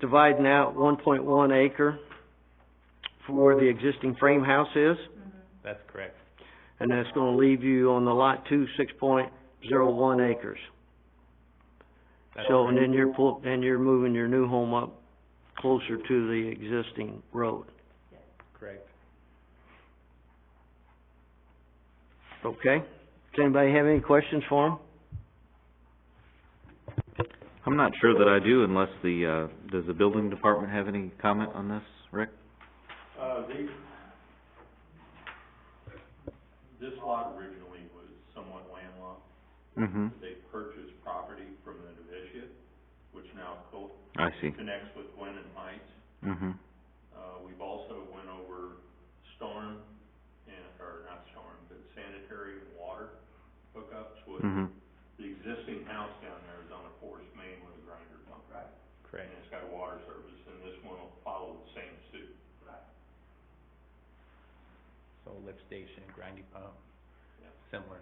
dividing out one point one acre for where the existing frame house is, That's correct. and that's gonna leave you on the lot two, six point zero one acres. That's So, and correct. then you're pull, and you're moving your new home up closer to the existing road, Correct. okay? Does anybody have any questions for him? I'm not sure that I do unless the, uh, does the building department have any comment on this, Rick? Uh, these, this lot originally was somewhat landlocked. Mm-hmm. They purchased property from the novitiate, which now co- I see. connects with Gwen and Heights. Mm-hmm. Uh, we've also went over storm and, or not storm, but sanitary and water hookups with Hmm. Mm-hmm. the existing house down there is on a forced main with a grinder pump. Right. And Correct. it's got a water service, and this one will follow the same suit. So lift station, grinding pump, Yeah. similar.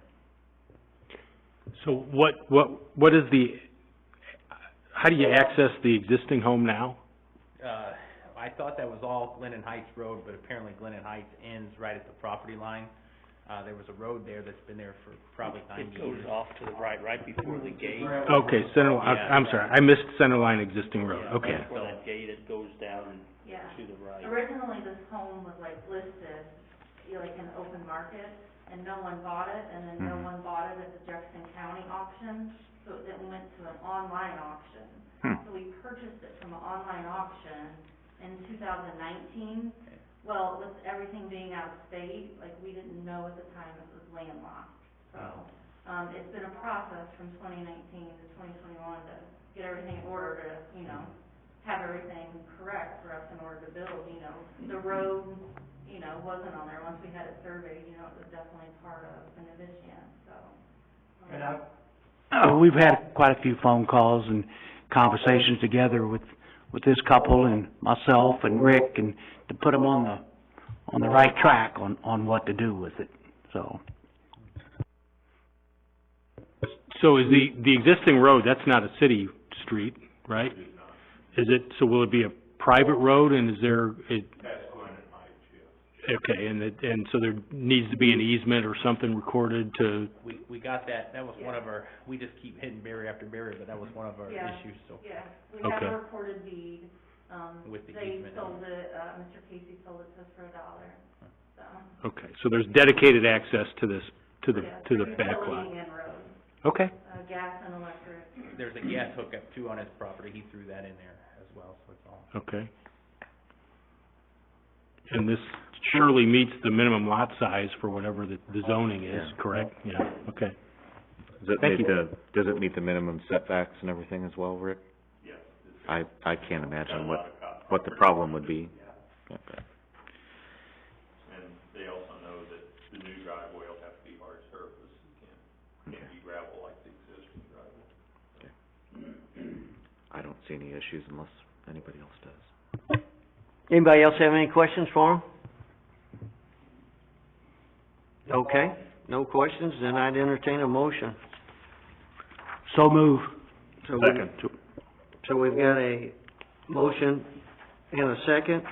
So what, what, what is the, how do you access the existing home now? Uh, I thought that was all Glennon Heights Road, but apparently Glennon Heights ends right at the property line. Uh, there was a road there that's been there for probably ninety It years. goes off to the right, right before the gate. Okay, center, Oh, li- I- I'm sorry, I missed center line existing road, Yeah, okay. Right before that gate, it goes down Yeah, to the right. originally this home was like listed, you know, like in the open market, and no one bought it, and then no Mhm. one bought it at the Jefferson County auction, so it then went to an online auction. Hmm. So we purchased it from an online auction in two thousand nineteen. Well, with everything being out of state, like, we didn't know at the time it was landlocked, so. Um, it's been a process from twenty nineteen to twenty twenty-one to get everything in order to, you know, have everything correct for us in order to build, you know. The road, you know, wasn't on there, once we had it surveyed, you know, it was definitely part of the Navitian, so. um, Uh, we've had quite a few phone calls and conversations together with, with this couple and myself and Rick and to put them on the, on the right track on, on what to do with it, so. So is the, the existing road, that's not a city street, right? Is it, so will it be a private road and is there, it, That's Gwen and Heights, yeah. okay, and it, and so there needs to be an easement or something recorded to, We, we got that, that was one of our, we just keep hitting barrier after barrier, but that was one of our Yeah. issues, so. Yeah, we have Okay. a recorded deed, um, With the they easement. sold it, uh, Mr. Casey sold it to us for a dollar, so. okay, so there's dedicated access to this, to the, yeah, to the it's back a lot. leading in road, Okay, uh, gas and electric. There's a gas hookup too on his property, he threw that in there as well, so it's all. okay. And this surely meets the minimum lot size for whatever the, the zoning is, Yeah. correct? Yeah, okay. Does it Thank meet you. the, does it meet the minimum setbacks and everything as well, Rick? Yes, it's I, I can't got a imagine lot what, of cop what the property. problem would be. Okay. And they also know that the new driveway will have to be hard surface, it can't, can't be gravel like the existing driveway. I don't see any issues unless anybody else does. Anybody else have any questions for him? Okay, no questions, then I'd entertain a motion. So move. So we- So we've got a motion and a second.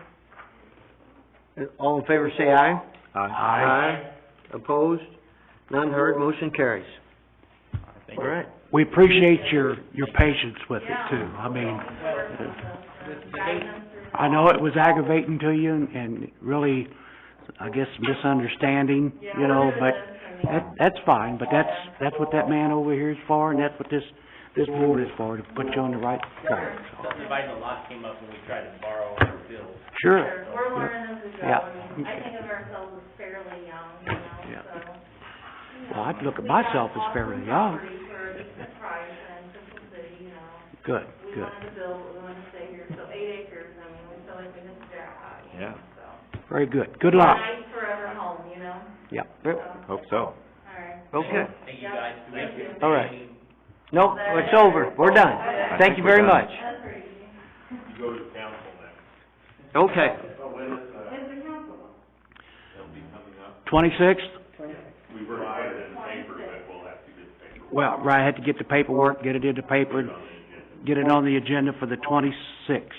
All in favor, say aye. Aye. Opposed? None heard, motion carries. Thank All you. right. We appreciate your, your patience with it too. I mean, I know it was aggravating to you and, and really, I guess misunderstanding, you know, but that, that's fine, but that's, that's what that man over here is for and that's what this, this board is for, to put you on the right track, so. Subdividing the lot came up when we tried to borrow or build. Sure. We're learning as we go, Yeah. I mean, I think of ourselves as fairly young, you Yeah. know, so. you Well, I'd know, look at we got myself as awesome fairly young. property for a decent price in Central City, you know. Good, We good. wanted to build, but we wanted to stay here, so eight acres, I mean, we feel like we missed out, you know, so. Very good. Good luck. Nice forever home, you know, Yep. so, Yep, Hope so. all right. Okay, Thank you guys. Do we have to- you. Thank All right. no, it's over, we're done. Okay, Thank you very much. That's pretty easy. You go to council now, Okay. When's the council? they'll be coming up, Twenty-sixth? we were hired in paper, but we'll have to get paper Well, right, I had to get the paperwork, get it in the paper, on the agenda. get it on the agenda for the twenty-sixth.